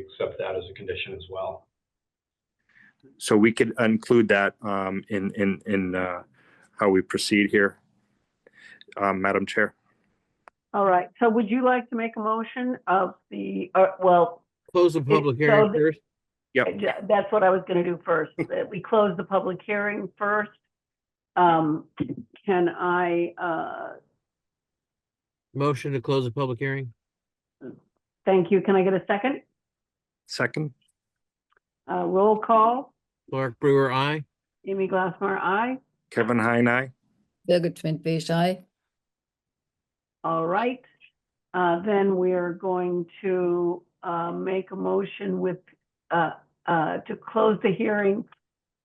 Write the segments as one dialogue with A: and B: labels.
A: accept that as a condition as well.
B: So we could include that um, in, in, in uh, how we proceed here. Um, Madam Chair,
C: All right, so would you like to make a motion of the, uh, well,
D: Close the public hearing
C: so the-
D: first.
B: Yep.
C: j- that's what I was gonna do first, that we close the public hearing first. Um, can I, uh,
D: Motion to close the public hearing.
C: thank you, can I get a second?
B: second,
C: Uh, roll call,
D: Clark Brewer, I.
C: Amy Glassmar, aye.
B: Kevin Heine, aye.
E: Birgit Schmidt-Besch, aye.
C: All right, uh, then we are going to, uh, make a motion with, uh, uh, to close the hearing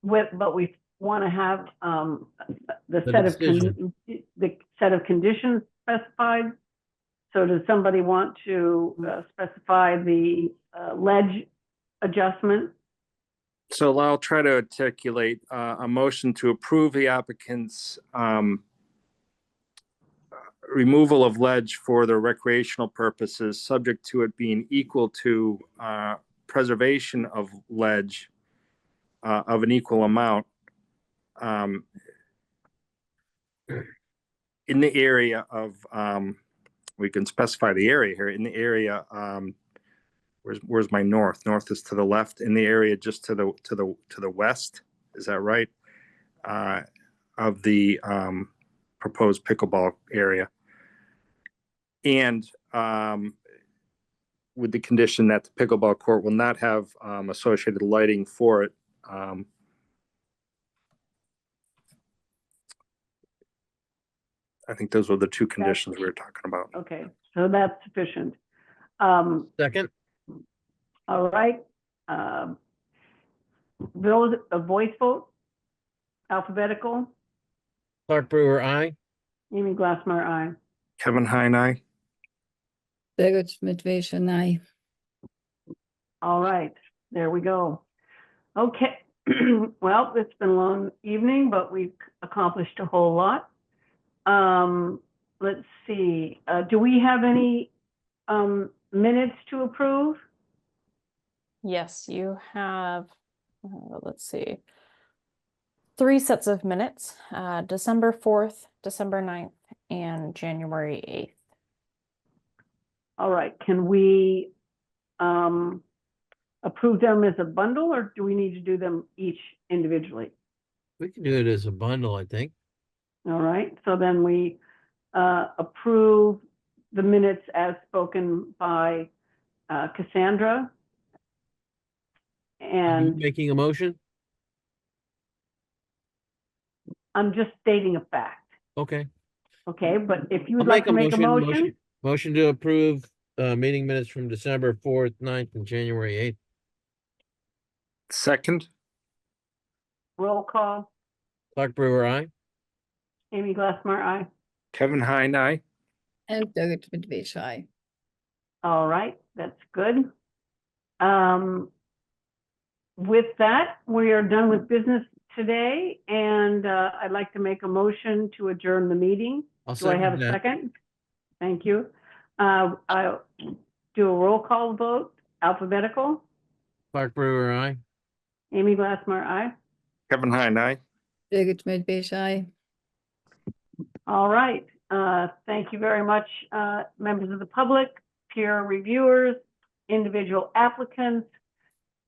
C: with, but we want to have, um, the
D: The
C: set of,
D: decision.
C: con- the set of conditions specified. So does somebody want to uh, specify the, uh, ledge adjustment?
B: So I'll try to articulate uh, a motion to approve the applicant's um, removal of ledge for their recreational purposes, subject to it being equal to uh, preservation of ledge uh, of an equal amount um, in the area of, um, we can specify the area here, in the area um, where's where's my north? North is to the left in the area just to the to the to the west. Is that right? Uh, of the um, proposed pickleball area, and um, with the condition that the pickleball court will not have um, associated lighting for it. Um, I think those were the two conditions we were talking about.
C: Okay, so that's sufficient. Um,
D: Second,
C: all right, um, those, a voice vote? Alphabetical?
D: Clark Brewer, I.
C: Amy Glassmeyer, aye.
B: Kevin Heine, aye.
E: Birgit Schmidt-Besch, aye.
C: All right, there we go. Okay, well, it's been a long evening, but we've accomplished a whole lot. Um, let's see, uh, do we have any, um, minutes to approve?
F: Yes, you have, uh, let's see. Three sets of minutes, uh, December fourth, December 9th, and January eighth.
C: All right, can we, um, approve them as a bundle or do we need to do them each individually?
D: We can do it as a bundle, I think.
C: All right, so then we uh, approve the minutes as spoken by uh, Cassandra.
D: Are you
C: And
D: Making a motion?
C: I'm just stating a fact,
D: Okay.
C: okay? But if you
D: I'll
C: would like to make a motion,
D: Motion to approve, uh, meeting minutes from December fourth, 9th, and January eighth.
B: Second,
C: roll call,
D: Clark Brewer, I.
C: Amy Glassmeyer, aye.
B: Kevin Heine, aye.
E: And Birgit Schmidt-Besch, aye.
C: All right, that's good. Um, With that, we are done with business today, and uh, I'd like to make a motion to adjourn the meeting.
D: I'll
C: Do I have
D: second
C: a
D: that.
C: second? Thank you. Uh, I'll do a roll call vote, alphabetical.
D: Clark Brewer, I.
C: Amy Glassmeyer, aye.
B: Kevin Heine, aye.
E: Birgit Schmidt-Besch, aye.
C: All right. Uh, Thank you very much, uh, members of the public, peer reviewers, individual applicants,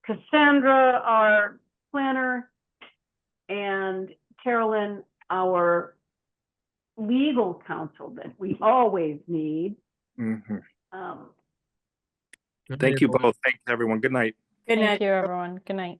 C: Cassandra, our planner, and Carolyn, our legal counsel that we always need.
B: Mhm.
C: Um,
B: Thank you both. Thanks, everyone. Good night.
F: Thank you, everyone. Good night.